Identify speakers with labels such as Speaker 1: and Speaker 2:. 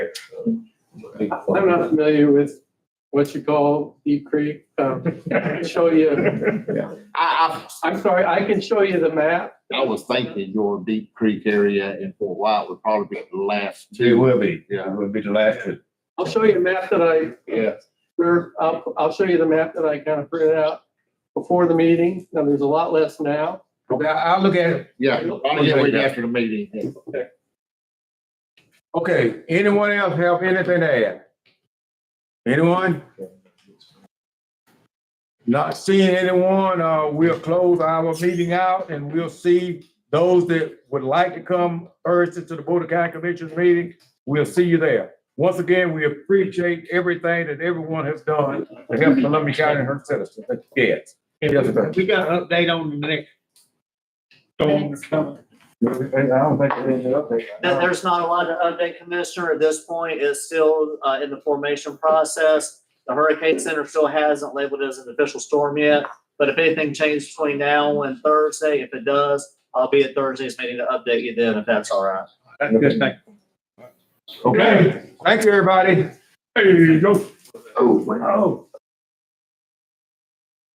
Speaker 1: I'm not familiar with what you call Deep Creek. Um, I can show you,
Speaker 2: I,
Speaker 1: I'm sorry, I can show you the map.
Speaker 2: I, I was thinking your Deep Creek area in Fort White would probably be the last
Speaker 3: It
Speaker 2: two.
Speaker 3: will be,
Speaker 2: Yeah.
Speaker 3: yeah, it will be the last one.
Speaker 1: I'll show you a map that I,
Speaker 2: Yeah.
Speaker 1: Sure, I'll, I'll show you the map that I kind of printed out before the meeting. Now, there's a lot less now.
Speaker 4: Okay, I- I'll look at it.
Speaker 2: Yeah, probably get it after the meeting.
Speaker 4: Okay, anyone else have anything to add? Anyone? Not seeing anyone, uh, we'll close our meeting out and we'll see those that would like to come Thursday to the Board of County Commissioners meeting. We'll see you there. Once again, we appreciate everything that everyone has done to help Columbia County and her citizens. Yes. Yes, sir.
Speaker 5: We got an update on the next. storm that's coming.
Speaker 4: I don't think there's an
Speaker 6: There-
Speaker 4: update.
Speaker 6: there's not a lot to update, Commissioner, at this point, it's still, uh, in the formation process. The Hurricane Center still hasn't labeled it as an official storm yet, but if anything changes between now and Thursday, if it does, I'll be at Thursday's meeting to update you then, if that's all right.
Speaker 5: That's good thing.
Speaker 4: Okay, thank you, everybody.
Speaker 5: Hey, go.
Speaker 2: Oh,
Speaker 5: Oh.